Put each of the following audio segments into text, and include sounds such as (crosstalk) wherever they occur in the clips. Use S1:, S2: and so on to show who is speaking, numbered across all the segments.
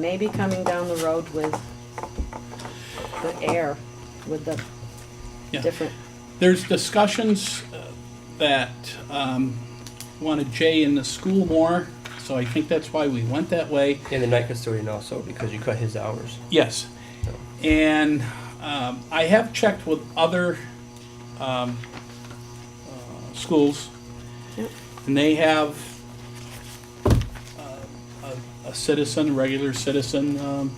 S1: Maybe coming down the road with the air, with the
S2: Yeah.
S1: different,
S2: There's discussions uh, that um, wanted Jay in the school more, so I think that's why we went that way.
S3: And the night custodian also, because you cut his hours.
S2: Yes. And um, I have checked with other um, uh, schools,
S1: Yep.
S2: and they have uh, a a citizen, a regular citizen, um,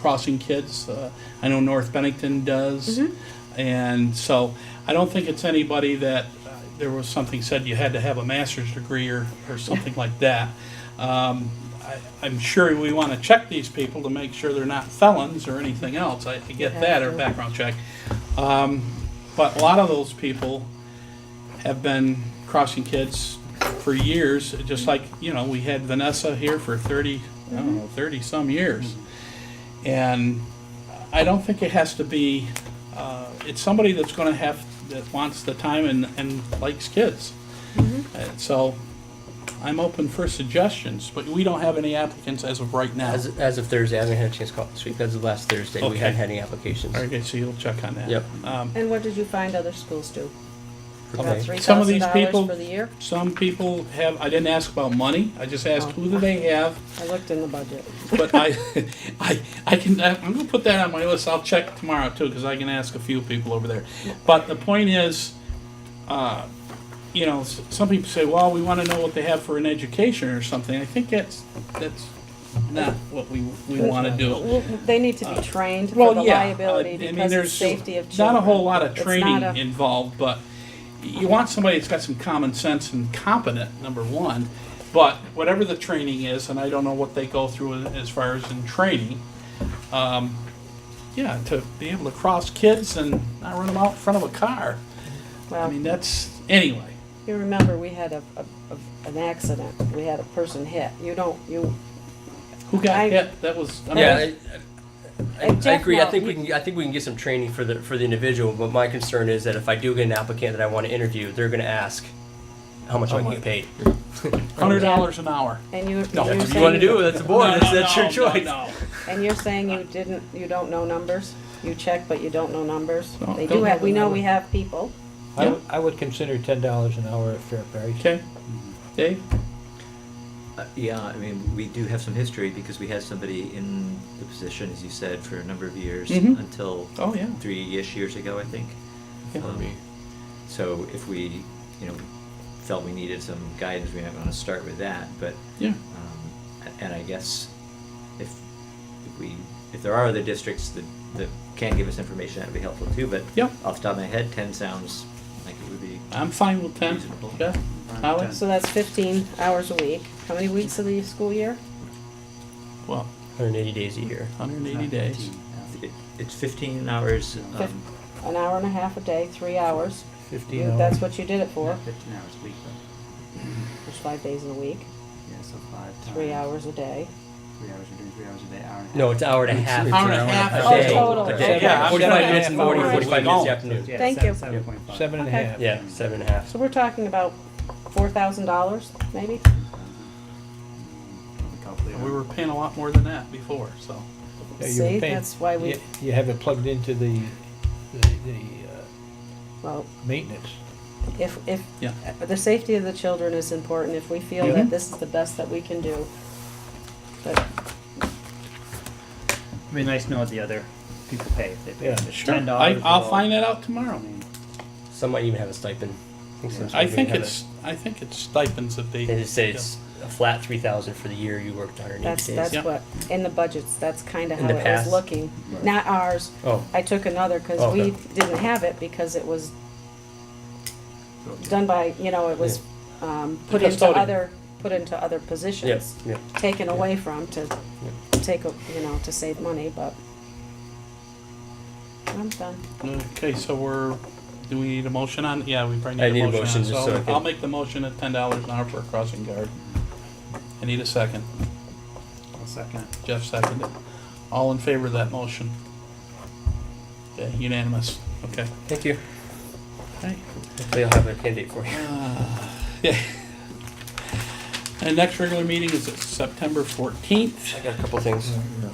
S2: crossing kids. Uh, I know North Bennington does. And so I don't think it's anybody that, uh, there was something said you had to have a master's degree or, or something like that. Um, I, I'm sure we want to check these people to make sure they're not felons or anything else. I, I get that, or background check. Um, but a lot of those people have been crossing kids for years, just like, you know, we had Vanessa here for thirty, I don't know, thirty-some years. And I don't think it has to be, uh, it's somebody that's gonna have, that wants the time and, and likes kids. Uh, So, I'm open for suggestions, but we don't have any applicants as of right now.
S3: As, as of Thursday, I haven't had a chance to call this week. As of last Thursday, we
S2: Okay.
S3: hadn't had any applications.
S2: Okay, so you'll check on that.
S3: Yep.
S2: Um,
S1: and what did you find other schools do?
S3: for
S1: About
S3: May.
S1: three
S2: Some of
S1: thousand
S2: these
S1: dollars
S2: people-
S1: for the year?
S2: Some people have, I didn't ask about money, I just asked who do they have,
S1: I looked in the budget.
S2: but I, (laughs) I, I can, I'm gonna put that on my list, I'll check tomorrow too, because I can ask a few people over there. But the point is, uh, you know, s- some people say, well, we wanna know what they have for an education or something, I think that's, that's not what we, we wanna do.
S1: Well, They need to be trained for
S2: Well,
S1: the
S2: yeah, uh,
S1: liability
S2: I mean,
S1: because of
S2: there's
S1: safety of children.
S2: Not a whole lot of
S1: It's
S2: training
S1: not a-
S2: involved, but you want somebody that's got some common sense and competent, number one. But whatever the training is, and I don't know what they go through as far as in training, um, yeah, to be able to cross kids and not run them out in front of a car. I
S1: Well,
S2: mean, that's, anyway,
S1: You remember, we had a, a, a- an accident, we had a person hit, you don't, you,
S2: who got
S1: I-
S2: hit? That was, I mean,
S3: Yeah, I, I,
S1: And
S3: I
S1: Jeff
S3: agree. I
S1: Mel-
S3: think we can. I think we can get some training for the for the individual. But my concern is that if I do get an applicant that I want to interview, they're going to ask how much
S4: Oh
S3: I'm getting paid.
S2: hundred dollars an hour.
S1: and you.
S2: No,
S1: you're
S2: if
S3: If you want to
S1: saying-
S3: do it, that's a board.
S2: No,
S3: that's
S2: no,
S3: that's
S2: no,
S3: your
S2: no,
S3: choice.
S2: no.
S1: And you're saying you didn't, you don't know numbers? You check, but you don't know numbers?
S2: No,
S1: They
S2: don't
S1: do
S2: know
S1: have,
S2: the
S1: we know we have people.
S4: I would- I would consider ten dollars an hour a fair price.
S2: Okay, Dave?
S5: Uh, Yeah, I mean, we do have some history because we had somebody in the position, as you said, for a number of years
S2: Mhm.
S5: until
S2: Oh, yeah.
S5: three-ish years ago, I think.
S2: Yeah.
S5: Um, So if we, you know, felt we needed some guidance, we might want to start with that, but,
S2: Yeah.
S5: um, a- and I guess if if we, if there are other districts that, that can give us information, that'd be helpful too, but
S2: Yep.
S5: off the top of my head, ten sounds like it would be,
S2: I'm fine with ten.
S5: Reasonable.
S2: Jeff? Alex?
S1: So that's fifteen hours a week. How many weeks of the school year?
S2: Well,
S3: 180 days a year.
S2: hundred and eighty days.
S5: it- it's fifteen hours,
S1: Fif-
S5: um,
S1: An hour and a half a day, three hours.
S4: Fifteen
S1: You-
S4: hours.
S1: That's what you did it for,
S6: Fifteen hours a week, but,
S1: It's five days a week,
S6: yeah, so five times.
S1: three hours a day.
S6: Three hours, you're doing three hours a day, hour and a half.
S3: No, it's hour and a half.
S2: Hour and a half
S1: a
S3: day.
S1: day. Oh,
S3: A
S1: total.
S3: day.
S2: Okay. Yeah, I'm
S3: 45
S2: gonna
S3: minutes in
S2: have
S3: the morning,
S2: more.
S3: 45 minutes in the
S2: Right.
S3: afternoon.
S6: Yeah,
S1: Thank
S6: seven-
S1: you.
S6: Seven point five.
S4: Seven and a
S1: Okay.
S4: half.
S3: Yeah, seven and a half.
S1: So we're talking about four thousand dollars, maybe?
S6: Mm, calculate
S2: And we
S6: it.
S2: were paying a lot more than that before, so.
S4: Yeah, you're
S1: See,
S4: paying-
S1: that's why we,
S4: You you have it plugged into the, the, the uh,
S1: well,
S4: maintenance.
S1: if, if,
S2: Yeah.
S1: uh, the safety of the children is important, if we feel that this is the best that we can do. But
S7: It'd be nice to know what the other people pay if they pay.
S4: Yeah,
S7: If it's
S2: Sure.
S7: $10
S2: I, I'll
S7: below,
S2: find that out
S6: I
S2: tomorrow.
S6: mean,
S3: Some might even have a stipend. I think, some
S2: I
S3: schools
S2: think
S3: even have
S2: it's, I think it's stipends that they.
S3: A, they just say it's a flat 3,000 for the year you worked 180
S1: That's,
S3: days.
S1: that's
S2: Yeah.
S1: what, in the budgets, that's kinda
S3: In
S1: how
S3: the
S1: it was
S3: past?
S1: looking. Not ours.
S3: Oh.
S1: I took another, cause
S3: Oh,
S1: we
S3: okay.
S1: didn't have it, because it was done by, you know, it was, um, put into
S2: custodian.
S1: other, put into other positions.
S3: Yes. Yeah.
S1: Taken away from to take, a- you know, to save money, but. I'm done.
S2: Okay, so we're, do we need a motion on, yeah, we probably
S3: I
S2: need a motion on.
S3: just so I
S2: So
S3: can-
S2: I'll make the motion at ten dollars an hour for a crossing guard. I need a second.
S6: I'll second it.
S2: Jeff seconded. All in favor of that motion? Okay, unanimous. Okay.
S3: Thank you.
S2: Okay.
S3: Hopefully I'll have a candidate for you.
S2: Yeah. And next regular meeting is September fourteenth.
S3: I got a couple things.